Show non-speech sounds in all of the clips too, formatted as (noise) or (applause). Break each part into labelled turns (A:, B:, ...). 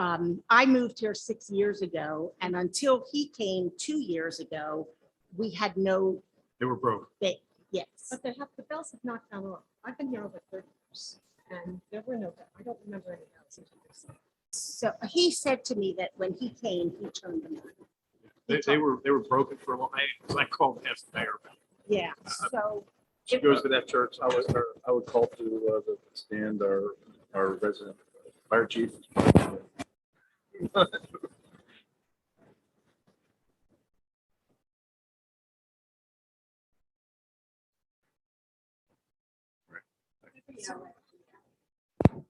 A: um, I moved here six years ago and until he came two years ago, we had no,
B: They were broke.
A: yes.
C: But they have, the bells have not gone off. I've been here over thirty years and there were no, I don't remember any bells. in Henderson.
A: So he said to me that when he came, he turned them on.
B: They, they were, they were broken for a long, I, I called and asked the mayor. about it.
A: Yeah, so
B: She goes to that church. I would, I would call to uh, the stand our, our resident fire chief.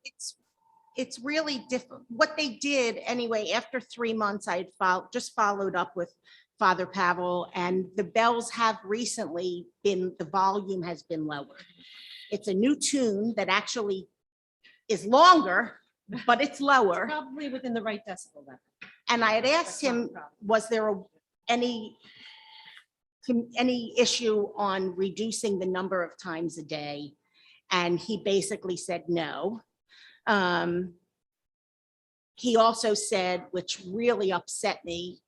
A: it's, it's really different. What they did anyway, after three months, I had followed, just followed up with Father Pavel and the bells have recently been, the volume has been lowered. It's a new tune that actually is longer, but it's lower.
C: Probably within the right decibel level.
A: And I had asked
C: That's not a
A: him,
C: problem.
A: was there a- any, com- any issue on reducing the number of times a day? And he basically said no. Um, He also said, which really upset me,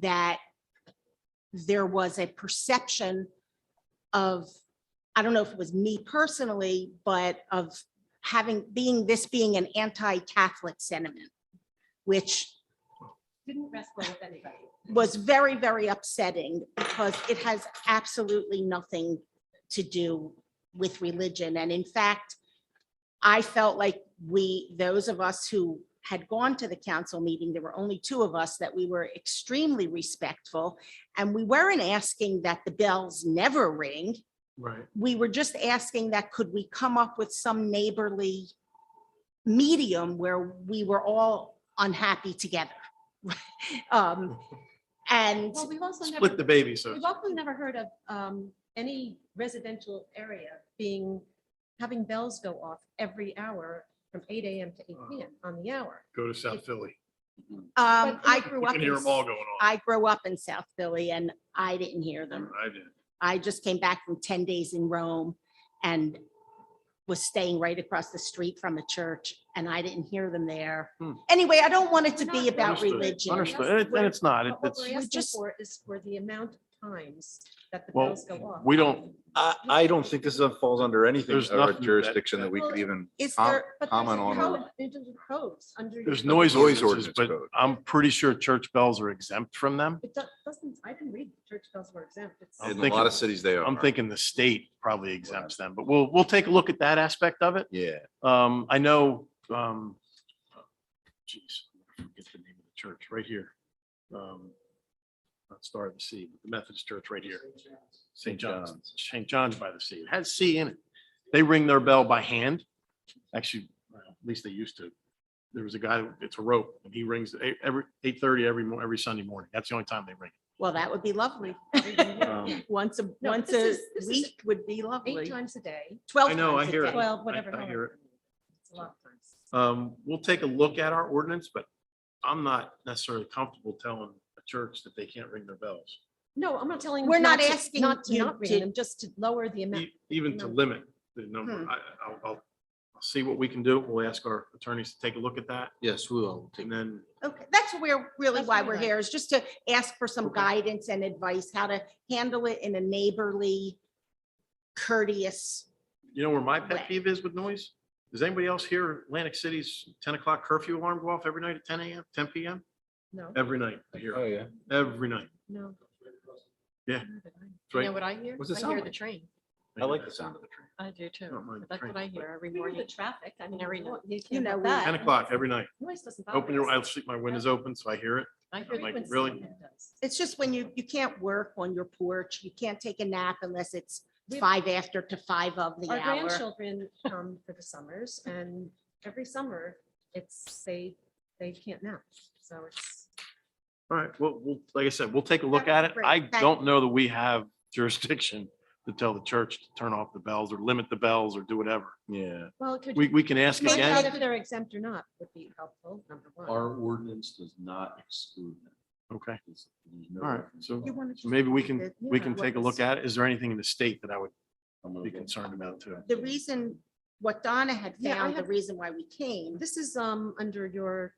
A: that there was a perception of, I don't know if it was me personally, but of having, being, this being an anti-Catholic sentiment, which
C: Didn't rest well with anybody.
A: was very, very upsetting because it has absolutely nothing to do with religion. And in fact, I felt like we, those of us who had gone to the council meeting, there were only two of us, that we were extremely respectful. And we weren't asking that the bells never ring.
B: Right.
A: We were just asking that could we come up with some neighborly medium where we were all unhappy together? (laughs) Um, And
C: Well, we've also never.
B: Split the baby, so.
C: We've also never heard of um, any residential area being, having bells go off every hour from eight AM to eight PM on the hour.
B: go to South Philly.
A: Um,
C: But
A: I
C: you-
A: grew
B: You
A: up,
B: can
A: in-
B: hear them all going on.
A: I grew up in South Philly and I didn't hear them.
B: I did.
A: I just came back from ten days in Rome and was staying right across the street from a church and I didn't hear them there.
B: Hmm.
A: Anyway, I don't want it to be
C: Understood,
A: about
B: Understood,
A: religion.
B: Understood. And it- and it's not, It-
C: But what
B: it's,
C: we're
A: We
C: asking
A: just-
C: for is for the amount of times that the
B: Well,
C: bells go off.
B: we don't,
D: I, I don't think this falls under anything
B: There's
D: of our
B: nothing that-
D: jurisdiction that we
C: Well,
D: could even,
A: Is
D: Um,
A: there,
C: But there's
D: comment
C: a
D: on
C: code-
D: our-
C: there's a codes under. your-
B: there's noise
D: Noise
B: ordinances,
D: ordinance
B: but
D: code.
B: I'm pretty sure church bells are exempt from them.
C: It do- doesn't, I didn't read church bells were exempt. It's-
B: I'm
D: in a
B: thinking-
D: lot of cities they are.
B: I'm thinking the state probably exempts them, but we'll, we'll take a look at that aspect of it.
D: Yeah,
B: Um, I know, um, jeez, I forget the name of the church right here. Um, Not Star of the Sea, but the Methodist Church right here. St. John's, St. John's by the Sea. It has sea in it. They ring their bell by hand. Actually, well, at least they used to. There was a guy, it's a rope, and he rings at eight- every eight thirty every morning, every Sunday morning. That's the only time they ring.
A: well, that would be lovely.
B: it. Um,
A: Once a, once
C: this
A: a
C: is- this is-
A: week would be
C: Eight
A: lovely.
C: times a day,
A: Twelve
B: I know, I
A: times a
B: hear it.
A: day.
C: twelve, whatever.
B: I hear it.
C: however. It's a lot of times.
B: Um, we'll take a look at our ordinance, but I'm not necessarily comfortable telling a church that they can't ring their bells.
C: No, I'm not telling. them
A: We're not
C: to-
A: asking
C: Not to
A: you
C: not
A: to-
C: ring them, just to lower the amount.
B: E- Even to
C: no.
B: limit the number.
A: Hmm.
B: I, I- I'll, I'll, I'll see what we can do. We'll ask our attorneys to take a look at that
E: Yes, we will. take-
B: and then
A: Okay, that's where, really
C: That's
A: why
C: really
A: we're
C: nice.
A: here, is just to ask for some
B: Okay.
A: guidance and advice, how to handle it in a neighborly, courteous
B: You know where my
A: Right.
B: pet peeve is with noise? Does anybody else hear Atlantic City's ten o'clock curfew alarm go off every night at ten AM, ten PM?
C: No,
B: Every night, I hear,
D: oh,
B: it.
D: yeah.
B: every night.
C: no.
B: Yeah.
F: You
B: Right.
F: know what I hear?
D: What's it
F: I
D: sound
F: hear the
D: like? Oh,
F: train.
D: I like the sound of the train.
F: I do
B: I don't
F: too.
B: mind the
F: That's
B: train,
F: what I
B: but
F: hear every
C: Ignore the
F: morning.
C: traffic, I mean,
F: Every
C: you
F: night.
C: can't help
A: You know, we-
C: that.
B: Ten o'clock every night.
C: Noise doesn't bother
B: Open your, I
C: us.
B: sleep, my window's open, so I hear it.
F: I
B: I'm like,
F: hear
C: Frequency
B: really?
C: it does.
A: It's just when you, you can't work on your porch, you can't take a nap unless it's
C: We-
A: five after to five of the
C: Our
A: hour.
C: grandchildren come for the summers and every summer it's, they, they can't nap. So it's,
B: All right, well, we'll, like I said, we'll take a look at it.
A: Great,
B: I
A: thank you.
B: don't know that we have (laughs) jurisdiction to tell the church to turn off the bells or limit the bells or do whatever.
D: Yeah.
C: well, could
B: We,
C: you
B: we can ask
A: Maybe
C: find out
B: again.
C: if they're exempt or not would be helpful, number one.
E: Our ordinance does not exclude them.
B: Okay,
E: There's- there's no
B: all right,
E: reference.
B: so
A: You wanna just
B: maybe we can,
A: look at
B: we can
A: what
B: take a
A: was-
B: look at it. Is there anything in the state that I would
E: I'm gonna
B: be
E: go-
B: concerned about too?
A: The reason, what Donna had
C: Yeah, I
A: found, the
C: have-
A: reason why we came,
C: This is, um, under your